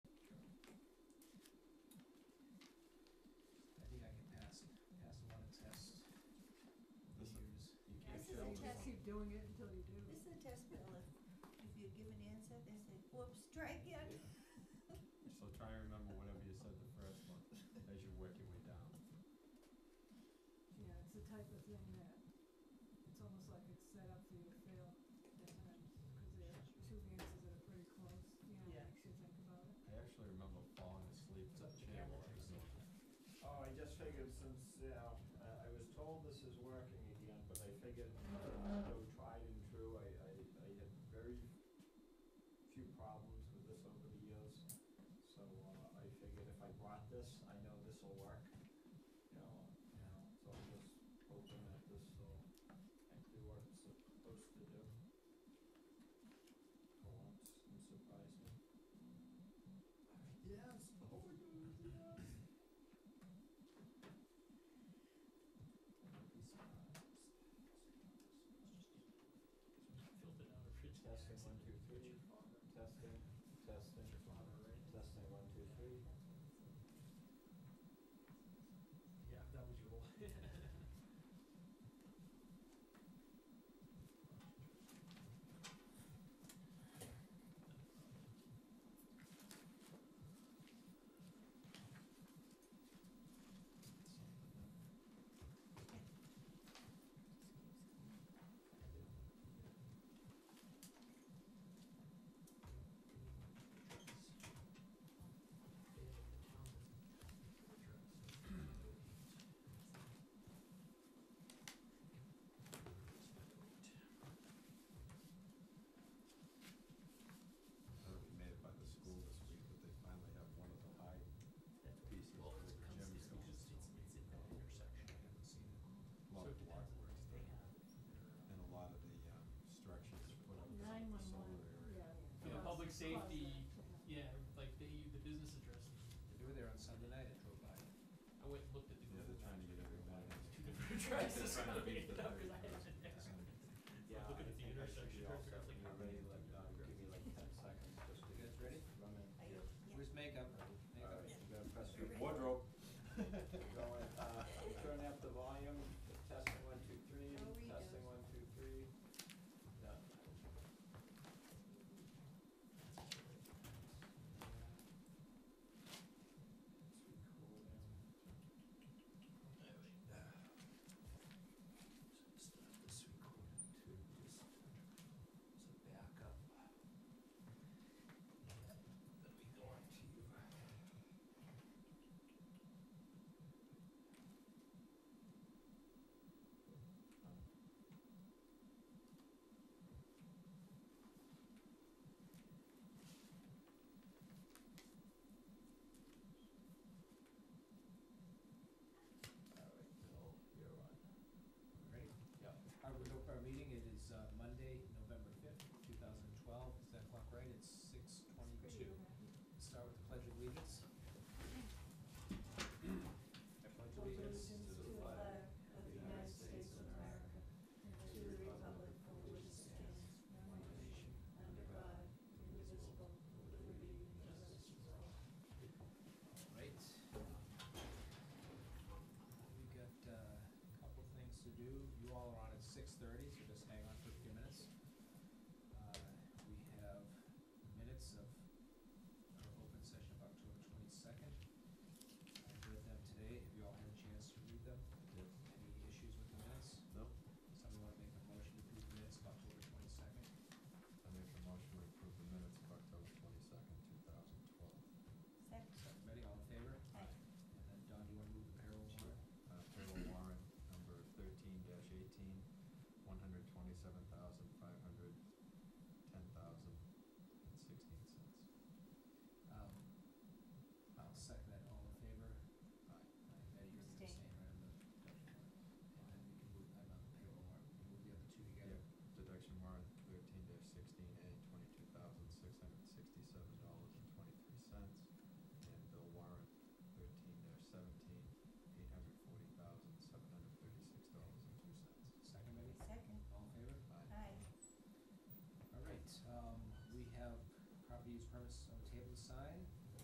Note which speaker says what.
Speaker 1: doing it until you do.
Speaker 2: This is a test bill, if, if you give an answer, they say, whoops, try again.
Speaker 3: So try and remember whatever you said the first one, as you work your way down.
Speaker 1: Yeah, it's the type of thing that, it's almost like it's set up for you to fail at times, because there are two answers that are pretty close, you know,
Speaker 4: Yeah.
Speaker 1: makes you think about it.
Speaker 3: I actually remember falling asleep in the chair while I was doing
Speaker 5: Oh, I just figured since, you know, I I was told this is working again, but I figured, uh, though tried and true, I, I, I had very few problems with this over the years. So, uh, I figured if I brought this, I know this'll work, you know, you know, so I'm just hoping that this'll actually what it's supposed to do. For once, and surprise me. Yes, oh my goodness, yes.
Speaker 6: Filtered out of fridge.
Speaker 5: Testing, one, two, three, testing, testing, testing, one, two, three.
Speaker 6: Yeah, that was your.
Speaker 3: I don't know if you made it by the school this week, but they finally have one of the high pieces
Speaker 6: Well,
Speaker 3: over
Speaker 6: it comes, it's
Speaker 3: Jim's going.
Speaker 6: just, it's, it's in that intersection.
Speaker 3: I haven't seen it. A
Speaker 6: So
Speaker 3: lot
Speaker 6: it
Speaker 3: of block
Speaker 6: depends on if
Speaker 3: work
Speaker 6: they
Speaker 3: done,
Speaker 6: have their,
Speaker 3: and a lot of the, um, structures put up in
Speaker 1: Nine
Speaker 3: the
Speaker 1: one
Speaker 3: solar
Speaker 1: one,
Speaker 3: area.
Speaker 1: yeah.
Speaker 7: You know, public
Speaker 1: Closet,
Speaker 7: safety,
Speaker 1: closet,
Speaker 7: yeah, like the, the business address.
Speaker 6: They were there on Sunday night, I drove by.
Speaker 7: I went and looked at the Google
Speaker 3: Yeah, they're trying to
Speaker 7: Maps.
Speaker 3: get everybody.
Speaker 7: Two different addresses,
Speaker 3: Trying to beat the
Speaker 7: No, 'cause I
Speaker 3: 30,000
Speaker 7: had it next to me.
Speaker 5: Yeah,
Speaker 7: Look
Speaker 5: I
Speaker 7: at the
Speaker 5: think I should
Speaker 7: intersection,
Speaker 5: be
Speaker 7: try to
Speaker 5: all
Speaker 7: figure out,
Speaker 5: set.
Speaker 7: like,
Speaker 5: You
Speaker 7: how
Speaker 5: ready?
Speaker 7: many
Speaker 5: Like,
Speaker 7: different
Speaker 5: uh, Give me like ten seconds just to.
Speaker 6: You guys ready?
Speaker 5: Run
Speaker 2: Are
Speaker 5: in.
Speaker 2: you- yeah.
Speaker 6: Where's makeup?
Speaker 5: All
Speaker 6: Makeup.
Speaker 5: right, you gotta press your.
Speaker 2: Ready?
Speaker 5: Wardrobe. Going, uh, turn up the volume, testing, one, two, three,
Speaker 2: Oh, we
Speaker 5: testing,
Speaker 2: do.
Speaker 5: one, two, three. Yeah. It's recording.
Speaker 6: Start this recording too, just, so back up. Then we go on to you.
Speaker 5: All right, Bill, you're on.
Speaker 6: Ready?
Speaker 5: Yep.
Speaker 6: Our, our meeting, it is uh, Monday, November fifth, two thousand and twelve, is that clock right? It's six twenty-two. Start with the pledge of allegiance. I pledge
Speaker 2: Pledge allegiance to the flag of the United States of America and to the republic for which it stands, one nation, under God, indivisible, with liberty and justice for all.
Speaker 6: Right. We've got uh, a couple things to do. You all are on at six thirty, so just hang on for a few minutes. Uh, We have minutes of our open session of October twenty-second. I've read them today. Have you all had a chance to read them?
Speaker 3: Yep.
Speaker 6: Any issues with the minutes?
Speaker 3: No,
Speaker 6: Someone want to make a motion to approve the minutes of October twenty-second?
Speaker 3: I make a motion to approve the minutes of October twenty-second, two thousand twelve.
Speaker 2: Second.
Speaker 6: Everybody, all in favor?
Speaker 2: Aye.
Speaker 6: And then, Don, do you want to move the payroll warrant?
Speaker 3: Uh, payroll warrant number thirteen dash eighteen, one hundred twenty-seven thousand,
Speaker 6: Um, um,